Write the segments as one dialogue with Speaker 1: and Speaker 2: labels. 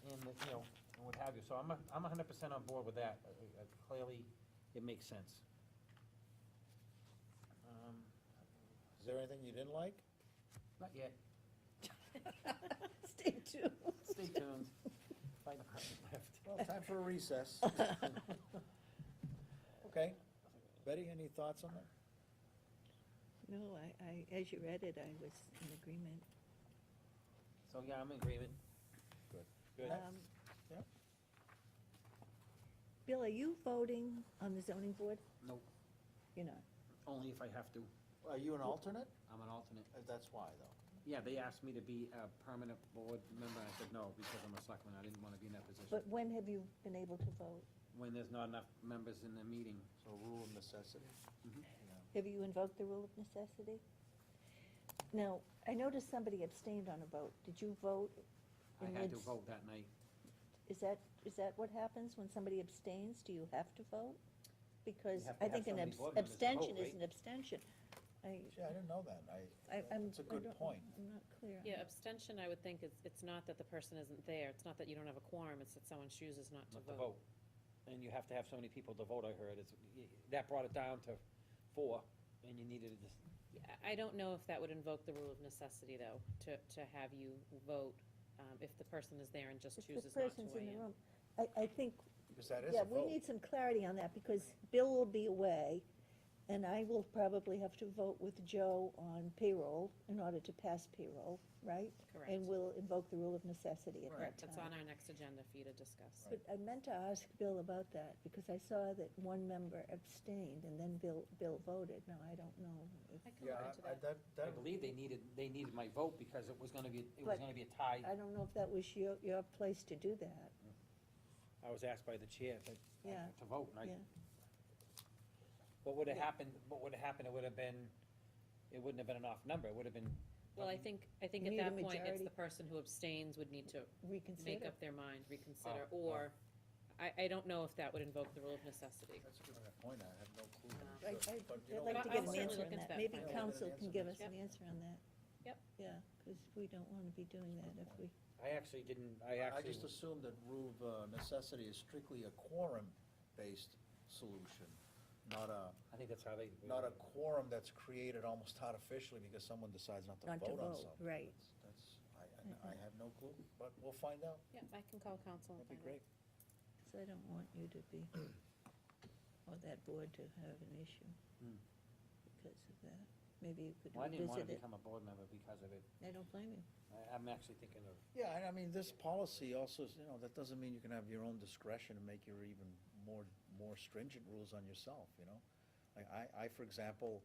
Speaker 1: and, you know, and what have you, so I'm, a- I'm hundred percent on board with that, Uh, uh, clearly, it makes sense. Um,
Speaker 2: Is there anything you didn't like?
Speaker 1: Not yet,
Speaker 3: Stay tuned.
Speaker 1: stay tuned, find a card left.
Speaker 2: Well, time for a recess. Okay. Betty, any thoughts on that?
Speaker 3: No, I, I, as you read it, I was in agreement.
Speaker 1: So, yeah, I'm in agreement.
Speaker 2: Good.
Speaker 1: Good.
Speaker 3: Um,
Speaker 2: Yep.
Speaker 3: Bill, are you voting on the zoning board?
Speaker 1: No,
Speaker 3: You're not.
Speaker 1: only if I have to,
Speaker 2: Are you an alternate?
Speaker 1: I'm an alternate.
Speaker 2: Uh, That's why, though.
Speaker 1: Yeah, they asked me to be a permanent board member, I said no, because I'm a selectman, I didn't wanna be in that position.
Speaker 3: But when have you been able to vote?
Speaker 1: When there's not enough members in the meeting,
Speaker 2: So rule of necessity. Mm-hmm.
Speaker 1: Mhm.
Speaker 2: Yeah.
Speaker 3: Have you invoked the rule of necessity? Now, I noticed somebody abstained on a vote. Did you vote?
Speaker 1: I
Speaker 3: And
Speaker 1: had to
Speaker 3: it's-
Speaker 1: vote that night.
Speaker 3: Is that, is that what happens when somebody abstains? Do you have to vote? Because
Speaker 1: have to
Speaker 3: I
Speaker 1: have
Speaker 3: think
Speaker 1: so
Speaker 3: an
Speaker 1: many
Speaker 3: abs-
Speaker 1: board members to vote,
Speaker 3: abstention is
Speaker 1: right?
Speaker 3: an abstention. I,
Speaker 2: Gee, I didn't know that. I,
Speaker 3: I, I'm.
Speaker 2: It's a
Speaker 3: I
Speaker 2: good
Speaker 3: don't-
Speaker 2: point.
Speaker 3: I'm not clear. on
Speaker 4: Yeah,
Speaker 3: that.
Speaker 4: abstention, I would think, is, it's not that the person isn't there, it's not that you don't have a quorum, it's that someone chooses not to
Speaker 1: not to
Speaker 4: vote.
Speaker 1: vote. And you have to have so many people to vote, I heard, it's, that brought it down to four, and you needed this.
Speaker 4: Yeah, I I don't know if that would invoke the rule of necessity, though, to, to have you vote, um, if the person is there and just
Speaker 3: If
Speaker 4: chooses
Speaker 3: the
Speaker 4: not to
Speaker 3: person's in
Speaker 4: weigh
Speaker 3: the
Speaker 4: in.
Speaker 3: room, I, I think,
Speaker 2: because that is
Speaker 3: yeah,
Speaker 2: a
Speaker 3: we
Speaker 2: vote.
Speaker 3: need some clarity on that, because Bill will be away, and I will probably have to vote with Joe on payroll in order to pass payroll, right? And
Speaker 4: Correct.
Speaker 3: we'll invoke the rule of necessity at that
Speaker 4: Correct, that's
Speaker 3: time.
Speaker 4: on our next agenda for you to discuss.
Speaker 3: But I meant to ask Bill about that, because I saw that one member abstained, and then Bill, Bill voted. Now, I don't know if,
Speaker 4: I can
Speaker 2: Yeah,
Speaker 4: look
Speaker 2: I- I-
Speaker 4: into that.
Speaker 2: that,
Speaker 1: I
Speaker 2: that,
Speaker 1: believe they needed, they needed my vote because it was gonna be, it was
Speaker 3: But-
Speaker 1: gonna be a tie.
Speaker 3: I don't know if that was your, your place to do that.
Speaker 1: I was asked by the chair to,
Speaker 3: Yeah.
Speaker 1: to vote, and I,
Speaker 3: Yeah.
Speaker 1: what would've
Speaker 3: Yeah.
Speaker 1: happened, what would've happened, it would've been, it wouldn't have been an off number, it would've been.
Speaker 4: Well, I
Speaker 1: um,
Speaker 4: think, I think
Speaker 3: You
Speaker 4: at
Speaker 3: need a
Speaker 4: that point, it's
Speaker 3: majority.
Speaker 4: the person who abstains would need to make
Speaker 3: Reconsider.
Speaker 4: up their mind, reconsider,
Speaker 2: Uh,
Speaker 1: oh.
Speaker 4: or, I, I don't know if that would invoke the rule of necessity.
Speaker 2: that's a good point. I have no clue.
Speaker 3: I, I,
Speaker 2: But you know
Speaker 3: I'd like
Speaker 2: what?
Speaker 3: to
Speaker 4: I'll
Speaker 3: get an
Speaker 4: certainly
Speaker 3: answer
Speaker 4: look
Speaker 3: on
Speaker 4: into
Speaker 3: that.
Speaker 4: that
Speaker 3: Maybe
Speaker 4: and find
Speaker 2: out.
Speaker 3: council can give us
Speaker 4: Yep.
Speaker 3: an answer on that.
Speaker 4: Yep.
Speaker 3: Yeah, because we don't want to be doing that if we,
Speaker 1: I actually didn't, I
Speaker 2: I
Speaker 1: actually,
Speaker 2: just assumed that rule of uh, necessity is strictly a quorum-based solution, not a,
Speaker 1: I think that's how they.
Speaker 2: not a quorum that's created almost artificially because someone decides not to
Speaker 3: Not to
Speaker 2: vote on
Speaker 3: vote,
Speaker 2: something.
Speaker 3: right.
Speaker 2: That's- That's, I- I, I have no clue, but we'll find out.
Speaker 4: Yeah, I can call council and
Speaker 2: That'd be great.
Speaker 4: find out.
Speaker 3: because I don't want you to be, or that board to have an issue
Speaker 1: Hmm.
Speaker 3: because of that. Maybe you could
Speaker 1: Well, I didn't wanna
Speaker 3: revisit it.
Speaker 1: become a board member because of it.
Speaker 3: I don't blame you.
Speaker 1: I, I'm actually thinking of
Speaker 2: Yeah, and I mean, this policy also, is, you know, that doesn't mean you can have your own discretion and make your even more, more stringent rules on yourself, you know? Like, I, I, for example,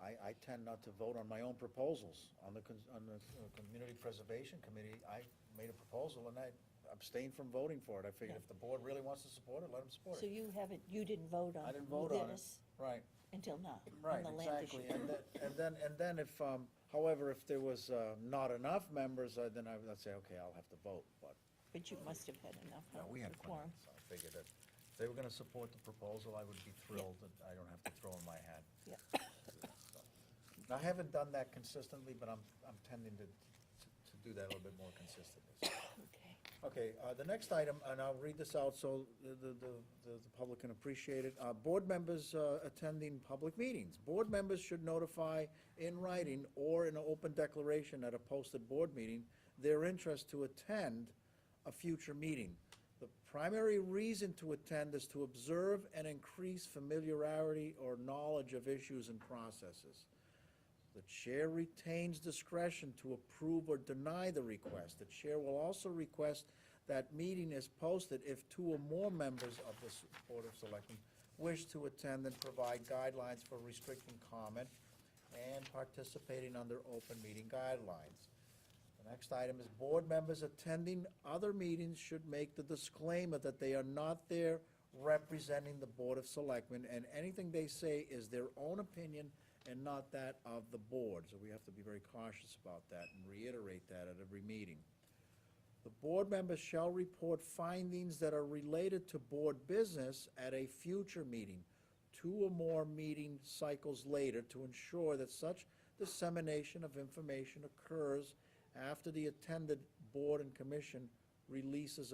Speaker 2: I, I tend not to vote on my own proposals. On the, cons- on the uh, Community Preservation Committee, I made a proposal and I abstained from voting for it. I figured if the board really wants to support it, let them support
Speaker 3: So
Speaker 2: it.
Speaker 3: you haven't, you didn't vote on
Speaker 2: I didn't vote on it.
Speaker 3: Ludenis
Speaker 2: Right.
Speaker 3: until now, on
Speaker 2: Right,
Speaker 3: the land issue.
Speaker 2: exactly, and then, and then, and then if, um, however, if there was, uh, not enough members, uh, then I would say, okay, I'll have to vote, but.
Speaker 3: But you must have had enough
Speaker 2: No, we had
Speaker 3: of
Speaker 2: plenty,
Speaker 3: quorum.
Speaker 2: so I figured that if they were gonna support the proposal, I would be thrilled that I don't have to throw in my hat.
Speaker 3: Yeah.
Speaker 2: Now, I haven't done that consistently, but I'm, I'm tending to, to to do that a little bit more consistently. so.
Speaker 3: Okay.
Speaker 2: Okay, uh, the next item, and I'll read this out so the, the, the- the public can appreciate it. Uh, Board members uh, attending public meetings. Board members should notify in writing or in an open declaration at a posted board meeting their interest to attend a future meeting. The primary reason to attend is to observe and increase familiarity or knowledge of issues and processes. The chair retains discretion to approve or deny the request. The chair will also request that meeting is posted if two or more members of the s- Board of Selectmen wish to attend and provide guidelines for restricting comment and participating under open meeting guidelines. The next item is board members attending other meetings should make the disclaimer that they are not there representing the Board of Selectmen, and anything they say is their own opinion and not that of the board. So we have to be very cautious about that and reiterate that at every meeting. The board members shall report findings that are related to board business at a future meeting, two or more meeting cycles later, to ensure that such dissemination of information occurs after the attended board and commission releases